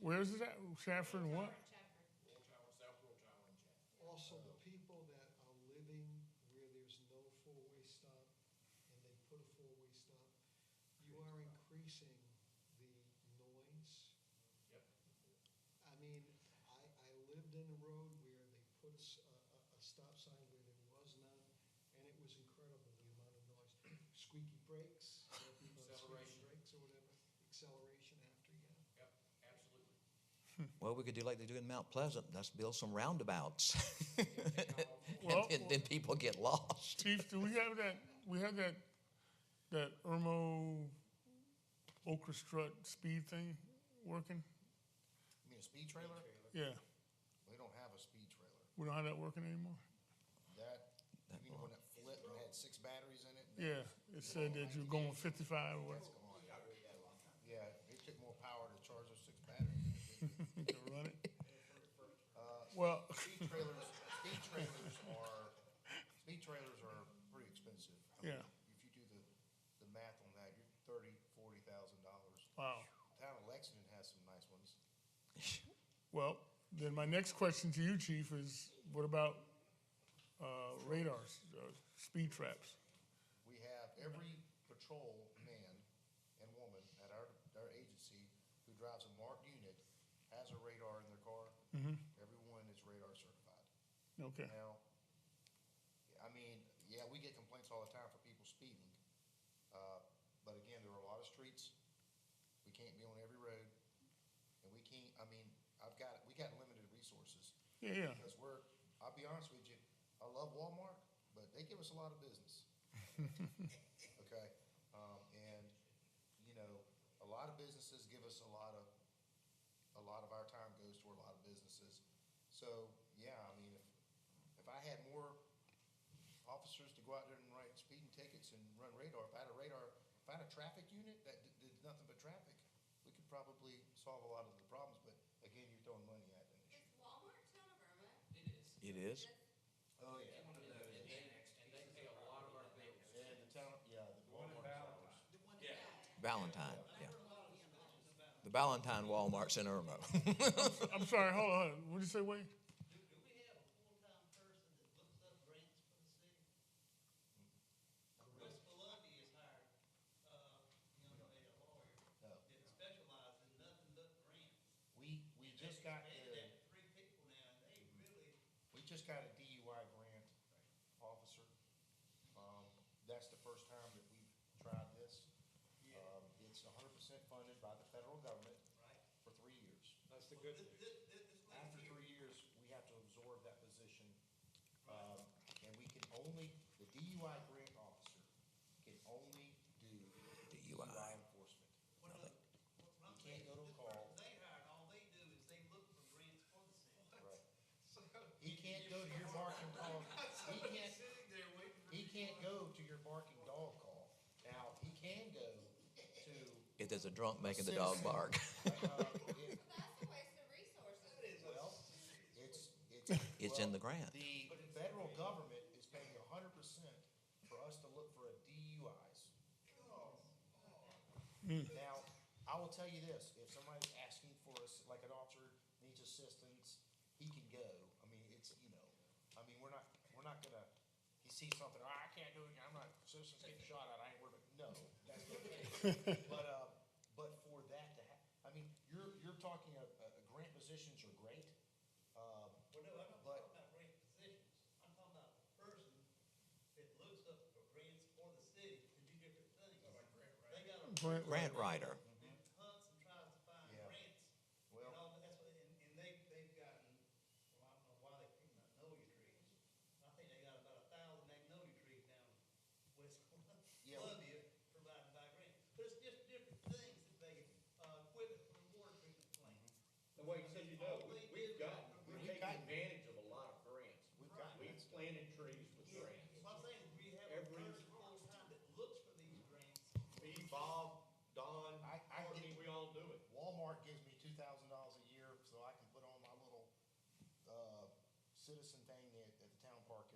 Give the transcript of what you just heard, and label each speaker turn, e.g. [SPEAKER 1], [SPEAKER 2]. [SPEAKER 1] Where is it at? Saffron what?
[SPEAKER 2] Also, the people that are living where there's no four-way stop and they put a four-way stop, you are increasing the noise. Yep. I mean, I, I lived in a road where they put a, s- a- a- a stop sign where there was none, and it was incredible, the amount of noise. Squeaky brakes, you know, people on squeaky
[SPEAKER 3] Acceleration.
[SPEAKER 2] brakes or whatever, acceleration after, yeah.
[SPEAKER 3] Absolutely.
[SPEAKER 4] Well, we could do like they do in Mount Pleasant, let's build some roundabouts.
[SPEAKER 1] Well-
[SPEAKER 4] And then, then people get lost.
[SPEAKER 1] Chief, do we have that, we have that, that Irmo orchestra speed thing working?
[SPEAKER 5] You mean a speed trailer?
[SPEAKER 1] Yeah,
[SPEAKER 5] We don't have a speed trailer.
[SPEAKER 1] we don't have that working anymore?
[SPEAKER 5] That, you mean the one that flipped and had six batteries in it?
[SPEAKER 1] Yeah, it said that you're going fifty-five or
[SPEAKER 5] That's
[SPEAKER 1] whatever
[SPEAKER 5] gone. Yeah, it took more power to charge those six batteries. than it did. Uh,
[SPEAKER 1] to run it. Well,
[SPEAKER 5] Speed trailers, speed trailers are, speed trailers are pretty expensive. I mean,
[SPEAKER 1] Yeah.
[SPEAKER 5] If you do the, the math on that, you're thirty, forty thousand dollars.
[SPEAKER 1] Wow.
[SPEAKER 5] Town of Lexington has some nice ones.
[SPEAKER 1] well, then my next question to you, Chief, is what about, uh, radars, uh, speed traps?
[SPEAKER 5] We have every patrol man and woman at our, our agency who drives a marked unit has a radar in their car. Everyone is radar certified.
[SPEAKER 1] Okay,
[SPEAKER 5] Now, I mean, yeah, we get complaints all the time for people speeding. Uh, but again, there are a lot of streets. We can't be on every road. And we can't, I mean, I've got, we got limited resources.
[SPEAKER 1] yeah, yeah,
[SPEAKER 5] Because we're, I'll be honest with you, I love Walmart, but they give us a lot of business. Okay, um, and, you know, a lot of businesses give us a lot of, a lot of our time goes toward a lot of businesses. So, yeah, I mean, if, if I had more officers to go out there and write speeding tickets and run radar, if I had a radar, if I had a traffic unit that did, did nothing but traffic, we could probably solve a lot of the problems, but again, you're throwing money at an issue.
[SPEAKER 6] Is Walmart town of Irma?
[SPEAKER 3] It is.
[SPEAKER 4] It is.
[SPEAKER 5] Oh, yeah.
[SPEAKER 3] And they, and they pay a lot of our bills.
[SPEAKER 5] Yeah, the town, yeah, the Walmart. stores.
[SPEAKER 3] Yeah.
[SPEAKER 4] Valentine, yeah. The Valentine Walmart's in Irmo.
[SPEAKER 1] I'm sorry, hold on, what did you say, Wade?
[SPEAKER 7] Do, do we have a full-time person that looks up grants for the city? West Columbia has hired, uh, young lady, a lawyer,
[SPEAKER 5] No.
[SPEAKER 7] that specializes in nothing but grants.
[SPEAKER 5] We, we just got
[SPEAKER 7] They
[SPEAKER 5] the,
[SPEAKER 7] expanded that to three people now, and they really,
[SPEAKER 5] we just got a DUI grant officer. Um, that's the first time that we've tried this.
[SPEAKER 7] yeah,
[SPEAKER 5] Um, it's hundred percent funded by the federal government
[SPEAKER 7] right?
[SPEAKER 5] for three years.
[SPEAKER 3] That's the
[SPEAKER 7] Well,
[SPEAKER 3] good
[SPEAKER 7] thi-
[SPEAKER 3] news.
[SPEAKER 7] thi- thi- this lady
[SPEAKER 5] After
[SPEAKER 7] here,
[SPEAKER 5] three years, we have to absorb that position. Um, and we can only, the DUI grant officer can only do DUI
[SPEAKER 4] DUI.
[SPEAKER 5] enforcement.
[SPEAKER 7] one of the- what- what I'm
[SPEAKER 5] You can't
[SPEAKER 7] saying
[SPEAKER 5] go to a
[SPEAKER 7] is this person
[SPEAKER 5] call.
[SPEAKER 7] They hired, all they do is they look for grants for the city.
[SPEAKER 5] Right.
[SPEAKER 7] So,
[SPEAKER 5] He can't go to your barking dog. He can't,
[SPEAKER 7] sitting there waiting for.
[SPEAKER 5] he
[SPEAKER 7] people
[SPEAKER 5] can't
[SPEAKER 7] to-
[SPEAKER 5] go to your barking dog call. Now, he can go to,
[SPEAKER 4] If there's a drunk making the dog bark.
[SPEAKER 5] uh,
[SPEAKER 6] Well,
[SPEAKER 5] it-
[SPEAKER 6] that's a waste of resources.
[SPEAKER 7] That is a
[SPEAKER 5] well, it's, it's.
[SPEAKER 4] It's in the
[SPEAKER 5] well,
[SPEAKER 4] grant.
[SPEAKER 5] The federal government is paying a hundred percent for us to look for a DUIs. Now, I will tell you this, if somebody's asking for us, like an officer needs assistance, he can go. I mean, it's, you know, I mean, we're not, we're not gonna, he sees something, "Ah, I can't do it, I'm not, citizens getting shot at, I ain't worried about, no, that's not the case. But, uh, but for that to hap, I mean, you're, you're talking, uh, uh, grant positions are great, um,
[SPEAKER 7] Well, no, I'm not
[SPEAKER 5] But-
[SPEAKER 7] talking about grant positions. I'm talking about the person that looks up for grants for the city to do different things. They got a.
[SPEAKER 1] Grant
[SPEAKER 4] Grant writer.
[SPEAKER 7] That hunts and tries to find
[SPEAKER 5] Yeah.
[SPEAKER 7] grants.
[SPEAKER 5] mm-hmm. Well-
[SPEAKER 7] And all, that. that's what, and, and they, they've gotten, well, I don't know why they picked magnolia trees. I think they got about a thousand magnolia trees down in West
[SPEAKER 5] Yeah.
[SPEAKER 7] Columbia provided by grants. But it's just different things that they, uh, equipment for the water treatment plant.
[SPEAKER 3] The way, so you know, we- we've gotten, we're
[SPEAKER 5] We've
[SPEAKER 3] taking
[SPEAKER 5] gotten-
[SPEAKER 3] advantage of a lot of grants.
[SPEAKER 5] we've got,
[SPEAKER 3] We've planted trees with grants.
[SPEAKER 7] What I'm saying is we have a
[SPEAKER 3] Every-
[SPEAKER 7] person full-time that looks for these grants.
[SPEAKER 3] Me, Bob, Don,
[SPEAKER 5] I- I
[SPEAKER 3] Courtney,
[SPEAKER 5] get-
[SPEAKER 3] we all do it.
[SPEAKER 5] Walmart gives me two thousand dollars a year so I can put on my little, uh, citizen